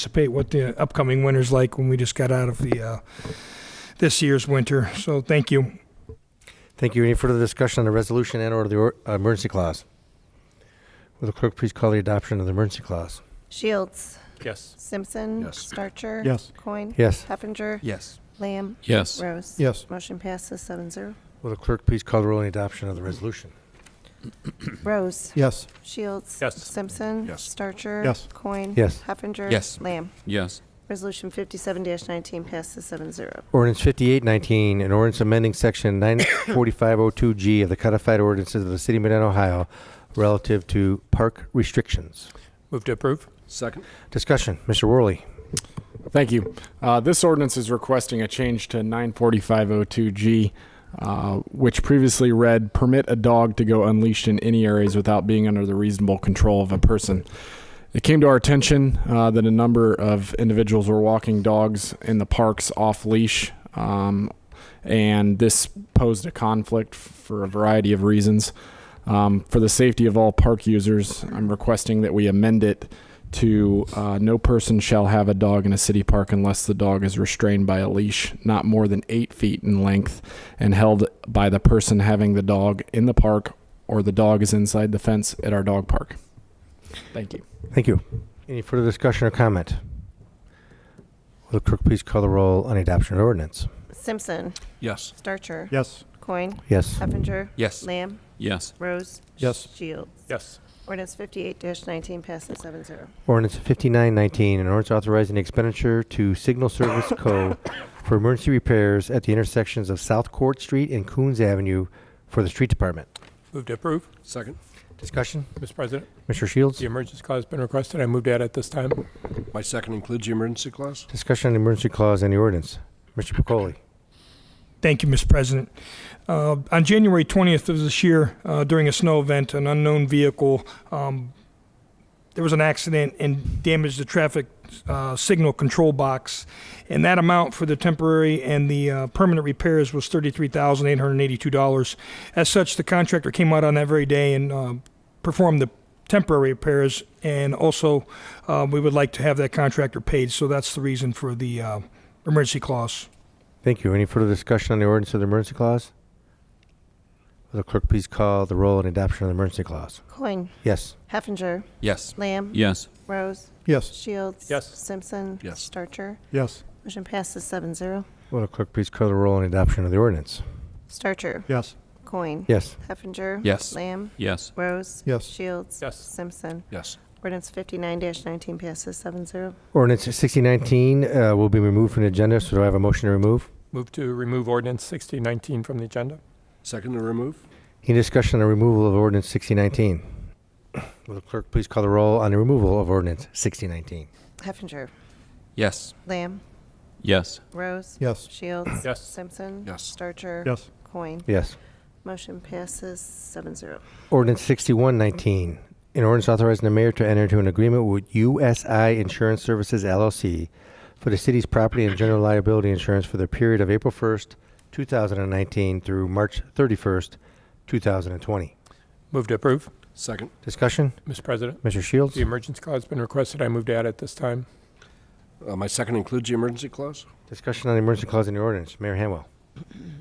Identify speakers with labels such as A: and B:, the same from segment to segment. A: anticipate what the upcoming winter's like when we just got out of the, uh, this year's winter. So thank you.
B: Thank you. Any further discussion on the resolution and or the or- uh, emergency clause? Will the clerk please call the adoption of the emergency clause?
C: Shields.
D: Yes.
C: Simpson.
D: Yes.
C: Starcher.
E: Yes.
C: Coin.
B: Yes.
C: Heffinger.
D: Yes.
C: Lamb.
D: Yes.
C: Rose.
E: Yes.
C: Motion passes seven zero.
B: Will the clerk please call the roll on the adoption of the resolution?
C: Rose.
E: Yes.
C: Shields.
D: Yes.
C: Simpson.
D: Yes.
C: Starcher.
E: Yes.
C: Coin.
B: Yes.
C: Heffinger.
D: Yes.
C: Lamb.
D: Yes.
C: Resolution fifty-seven nineteen passes seven zero.
B: Ordinance 5819, an ordinance amending section 94502G of the codified ordinances of the city of Medina, Ohio relative to park restrictions.
D: Move to approve?
F: Second?
B: Discussion, Mr. Worley.
G: Thank you. Uh, this ordinance is requesting a change to 94502G, uh, which previously read permit a dog to go unleashed in any areas without being under the reasonable control of a person. It came to our attention uh, that a number of individuals were walking dogs in the parks off leash, um, and this posed a conflict f- for a variety of reasons. Um, for the safety of all park users, I'm requesting that we amend it to uh, no person shall have a dog in a city park unless the dog is restrained by a leash not more than eight feet in length and held by the person having the dog in the park or the dog is inside the fence at our dog park. Thank you.
B: Thank you. Any further discussion or comment? Will the clerk please call the roll on the adoption of the ordinance?
C: Simpson.
D: Yes.
C: Starcher.
E: Yes.
C: Coin.
B: Yes.
C: Heffinger.
D: Yes.
C: Lamb.
D: Yes.
C: Rose.
E: Yes.
C: Shields.
D: Yes.
C: Ordinance fifty-eight nineteen passes seven zero.
B: Ordinance 5919, an ordinance authorizing the expenditure to Signal Service Co. for emergency repairs at the intersections of South Court Street and Coons Avenue for the street department.
H: Move to approve.
F: Second?
B: Discussion,
H: Mr. President,
B: Mr. Shields?
H: the emergency clause has been requested. I move to add it this time.
F: My second includes the emergency clause?
B: Discussion on the emergency clause and the ordinance. Mr. Pacoli?
A: Thank you, Mr. President. Uh, on January 20th of this year, uh, during a snow event, an unknown vehicle, um, there was an accident and damaged the traffic uh, signal control box. And that amount for the temporary and the uh, permanent repairs was $33,882. As such, the contractor came out on that very day and uh, performed the temporary repairs. And also, uh, we would like to have that contractor paid. So that's the reason for the uh, emergency clause.
B: Thank you. Any further discussion on the ordinance of the emergency clause? Will the clerk please call the roll on adoption of the emergency clause?
C: Coin.
B: Yes.
C: Heffinger.
D: Yes.
C: Lamb.
D: Yes.
C: Rose.
E: Yes.
C: Shields.
H: Yes.
C: Simpson.
F: Yes.
C: Starcher.
E: Yes.
C: Motion passes seven zero.
B: Will the clerk please call the roll on adoption of the ordinance?
C: Starcher.
E: Yes.
C: Coin.
B: Yes.
C: Heffinger.
D: Yes.
C: Lamb.
D: Yes.
C: Rose.
E: Yes.
C: Shields.
H: Yes.
C: Simpson.
F: Yes.
C: Ordinance fifty-nine nineteen passes seven zero.
B: Ordinance 6019 uh, will be removed from the agenda, so do I have a motion to remove?
H: Move to remove ordinance 6019 from the agenda.
F: Second to remove?
B: Any discussion on the removal of ordinance 6019? Will the clerk please call the roll on the removal of ordinance 6019?
C: Heffinger.
D: Yes.
C: Lamb.
D: Yes.
C: Rose.
E: Yes.
C: Shields.
H: Yes.
C: Simpson.
F: Yes.
C: Starcher.
E: Yes.
C: Coin.
B: Yes.
C: Motion passes seven zero.
B: Ordinance 6119, an ordinance authorizing the mayor to enter into an agreement with USI Insurance Services LLC for the city's property and general liability insurance for the period of April 1st, 2019 through March 31st, 2020.
H: Move to approve.
F: Second?
B: Discussion,
H: Mr. President,
B: Mr. Shields?
H: the emergency clause has been requested. I move to add it this time.
F: Uh, My second includes the emergency clause?
B: Discussion on the emergency clause in the ordinance. Mayor Hanwell.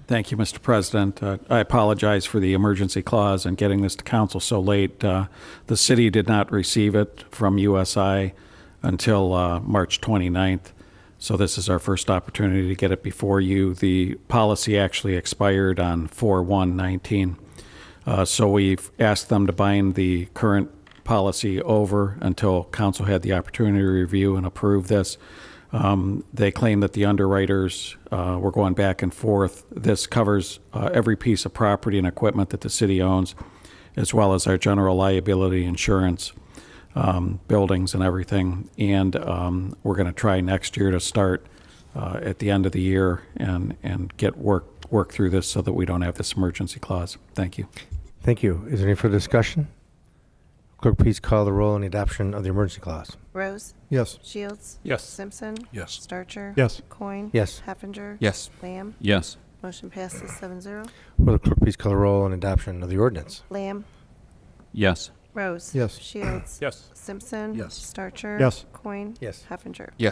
I: Thank you, Mr. President. Uh, I apologize for the emergency clause and getting this to council so late. Uh, The city did not receive it from USI until uh, March 29th, so this is our first opportunity to get it before you. The policy actually expired on 4/1/19, Uh, so we've asked them to bind the current policy over until council had the opportunity to review and approve this. Um, They claim that the underwriters uh, were going back and forth. This covers uh, every piece of property and equipment that the city owns, as well as our general liability insurance, um, buildings and everything. And um, we're going to try next year to start uh, at the end of the year and, and get work, work through this so that we don't have this emergency clause. Thank you.
B: Thank you. Is there any further discussion? Clerk, please call the roll on the adoption of the emergency clause.
C: Rose.
E: Yes.
C: Shields.
H: Yes.
C: Simpson.
F: Yes.
C: Starcher.
E: Yes.
C: Coin.
B: Yes.
C: Heffinger.
D: Yes.
C: Lamb.
D: Yes.
C: Motion passes seven zero.
B: Will the clerk please call the roll on adoption of the ordinance?
C: Lamb.
D: Yes.
C: Rose.
E: Yes.
C: Shields.
H: Yes.
C: Simpson.
F: Yes.
C: Starcher.
E: Yes.
C: Coin.
B: Yes.
C: Heffinger.